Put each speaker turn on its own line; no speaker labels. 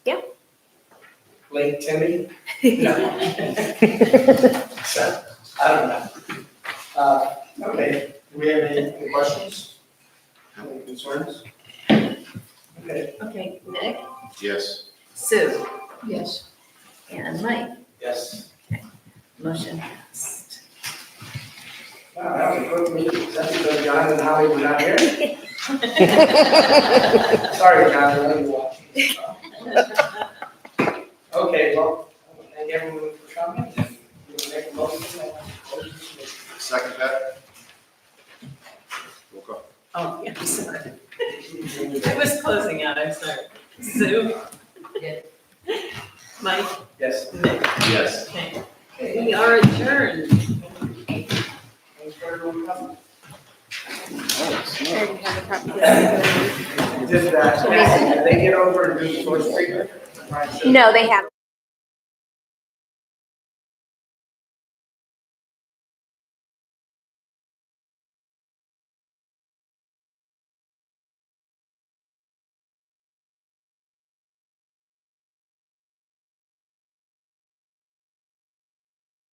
Link Timmy? No. So, I don't know. Uh, Okay, do we have any any questions? Any concerns? Okay,
Okay, Nick,
Yes.
Sue,
Yes.
and Mike,
yes.
motion passed.
Wow, that was a quick meeting. Is that because John and Holly were not here? Sorry, John, I know you're watching. Okay, well, thank everyone for coming. We'll make a motion. and close this meeting.
Second that? Roll call.
Oh, yeah, I'm sorry. I was closing out, I'm sorry. Sue? Mike?
Yes.
Nick?
Yes.
Okay. We are adjourned.
Thanks for everyone coming.
Sure, you have a problem.
Just, uh, they get over and do the voice treatment. Right, so-
No, they haven't.